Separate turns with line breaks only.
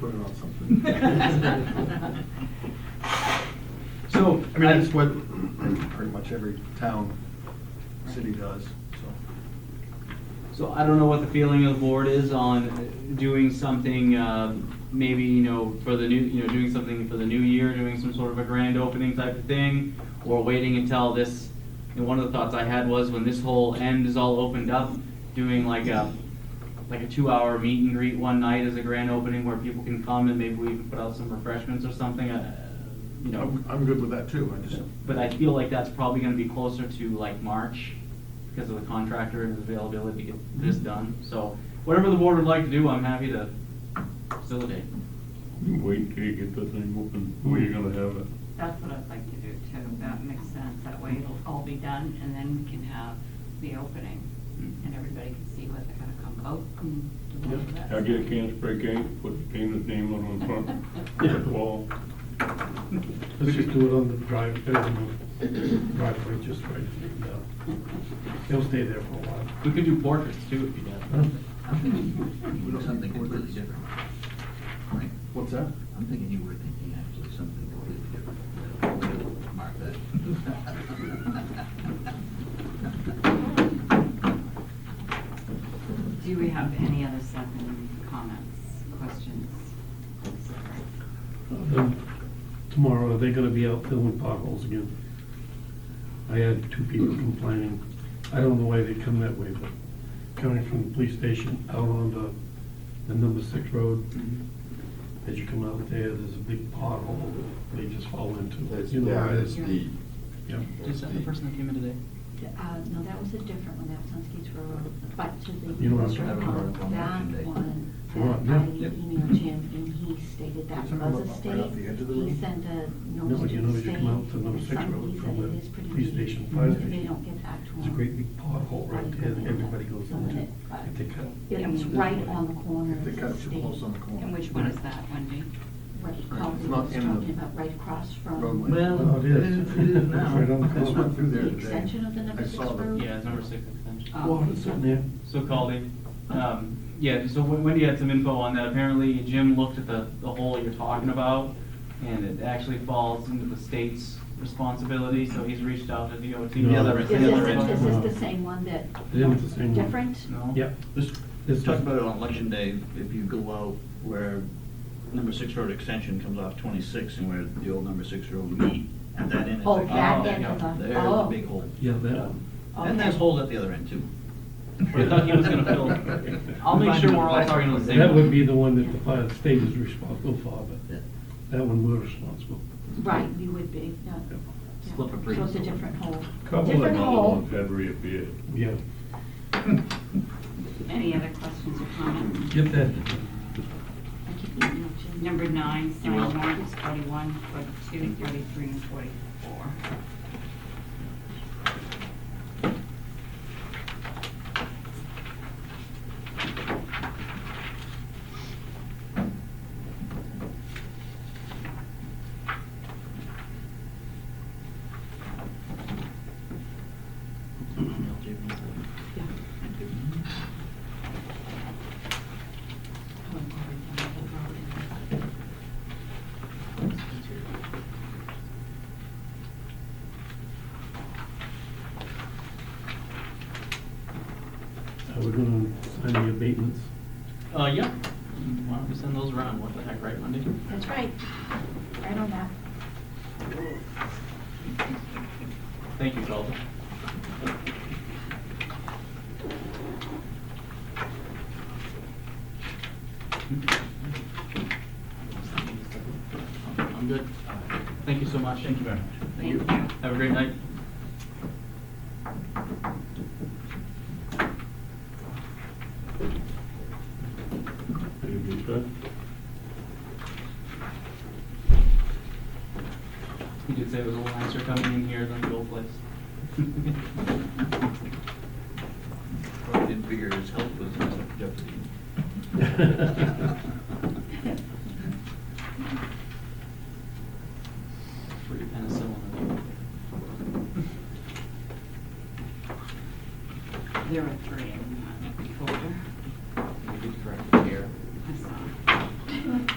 put it on something.
So,
I mean, that's what pretty much every town, city does, so.
So I don't know what the feeling of the board is on doing something, uh, maybe, you know, for the new, you know, doing something for the new year, doing some sort of a grand opening type of thing, or waiting until this, and one of the thoughts I had was when this whole end is all opened up, doing like a, like a two-hour meet and greet one night as a grand opening where people can come and maybe we even put out some refreshments or something, uh, you know.
I'm, I'm good with that too, I just,
But I feel like that's probably gonna be closer to like March because of the contractor and his availability to get this done. So whatever the board would like to do, I'm happy to facilitate.
You Wait till you get this thing open, who are you gonna have it?
That's what I'd like to do too, that makes sense, that way it'll all be done, and then we can have the opening, and everybody can see what they're gonna come vote and do all of that.
I get a can spray paint, put Dana's name on the front, put it wall.
Let's just do it on the drive, building driveway, just right, and, uh, it'll stay there for a while.
We could do portraits too if you guys.
Mm-hmm. we don't
Something
need
completely
portraits.
different. Right?
What's that?
I'm thinking you were thinking actually something completely different. Mark that.
Do we have any other second comments, questions?
Then Tomorrow, are they gonna be out filling potholes again? I had two people complaining. I don't know why they come that way, but coming from the police station out on the, the number six road, as you come out there, there's a big pothole they just fall into. You know,
Yeah, it's the,
Yeah.
Is that the person that came in today?
Uh, no, that was a different one, that was on Skates Road, but to the.
You know what I'm
That
talking
about.
That one,
The one,
that I
yeah.
emailed him, and he stated that
You're talking
was a
about
state.
right off the edge of the road?
He sent a
No,
note
you
to
know,
the
you
state.
come out to number six
Somebody
road from
said
the
it is pretty
police
deep,
station, fire
and They
station.
don't get back to him.
There's a great big pothole right there that everybody goes into. If they cut-
It was right on the corner
If
of
they cut it
the
too close on the
state,
corner.
And which one is that, Wendy?
right,
Right,
called
it's
it
not
was
in the
talking about right across from.
roadway.
Oh, it is.
It is now.
Right on the
I just went through
corner.
there
The
today.
extension of the number
I
six
saw the-
road?
Yeah, it's number six extension.
Oh,
Well, it's in there.
So Caldy, um, yeah, so Wen- Wendy had some info on that. Apparently Jim looked at the, the hole you're talking about and it actually falls into the state's responsibility, so he's reached out to DOT.
The other-
Is
It's
this,
the other
is
end.
this the same one that?
Yeah, it's the same one.
Different?
No?
Yep.
This,
This
talk
is-
about it on election day, if you go out where number six road extension comes off twenty-six and where the old number six road meet, at that end.
Oh,
Oh,
that end
yeah.
of the,
There's a
oh.
big hole.
Yeah, that um, one.
And there's holes at the other end too.
I thought he was gonna fill- I'll make sure we're all talking on the same-
That would be the one that the fire state is responsible for, but
Yeah.
that one we're responsible.
Right, we would be, yeah.
Yep.
Yeah.
Slip a breeze.
So it's a different hole.
Couple of
Different
other
hole.
ones had reappeared.
Yeah.
Any other questions or comments?
Get that.
I keep thinking of Jim.
Number nine, sign warrants, forty-one, forty-two, forty-three, and forty-four.
Are we gonna sign the abatements?
Uh, yeah. Why don't we send those around? What the heck, right, Monday?
That's right. Right on that.
Thank you, Calder. I'm good. Thank you so much. Thank you very much.
Thank you.
Have a great night.
Anything to say?
You did say it was a little nicer coming in here than the old place.
Probably Didn't figure his health was in jeopardy.
Put your penicillin in there.
There are three.